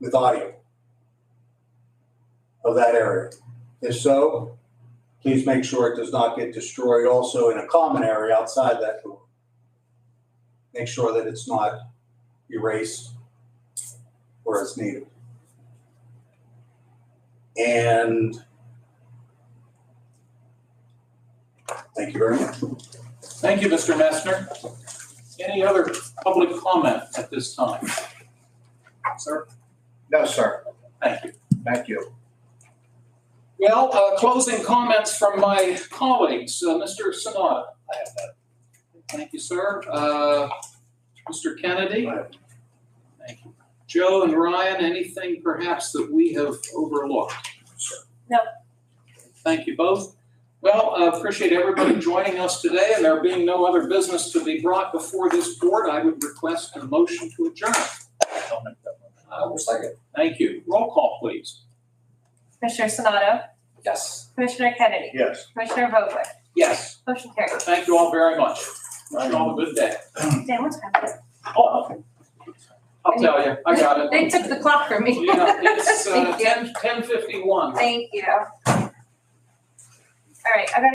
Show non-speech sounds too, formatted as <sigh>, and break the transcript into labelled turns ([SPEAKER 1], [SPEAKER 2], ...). [SPEAKER 1] with audio of that area? If so, please make sure it does not get destroyed also in a common area outside that door. Make sure that it's not erased where it's needed. And thank you very much.
[SPEAKER 2] Thank you, Mr. Messner. Any other public comment at this time? Sir,
[SPEAKER 3] No, sir.
[SPEAKER 2] thank you.
[SPEAKER 3] Thank you.
[SPEAKER 2] Well, uh, closing comments from my colleagues. Uh, Mr. Sanada. I have that. Thank you, sir. Uh, Mr. Kennedy?
[SPEAKER 1] I
[SPEAKER 2] Thank you. Joe and Ryan, anything perhaps that we have overlooked?
[SPEAKER 4] No.
[SPEAKER 2] Thank you both. Well, I appreciate everybody joining us today, and there being no other business to be brought before this board, I would request a motion to adjourn. I will second. Thank you. Roll call, please.
[SPEAKER 4] Commissioner Sonato,
[SPEAKER 2] Yes.
[SPEAKER 4] Commissioner Kennedy,
[SPEAKER 3] Yes.
[SPEAKER 4] Commissioner Vogler,
[SPEAKER 2] Yes.
[SPEAKER 4] motion carried.
[SPEAKER 2] Thank you all very much. Wish you all a good day.
[SPEAKER 4] Dan, what's happening?
[SPEAKER 2] Oh, I'll tell you, I got it.
[SPEAKER 4] They took the clock from me.
[SPEAKER 2] Yeah,
[SPEAKER 4] <laughs>
[SPEAKER 2] it's uh,
[SPEAKER 4] Thank you.
[SPEAKER 2] 10, 10:51.
[SPEAKER 4] Thank you. All right, I got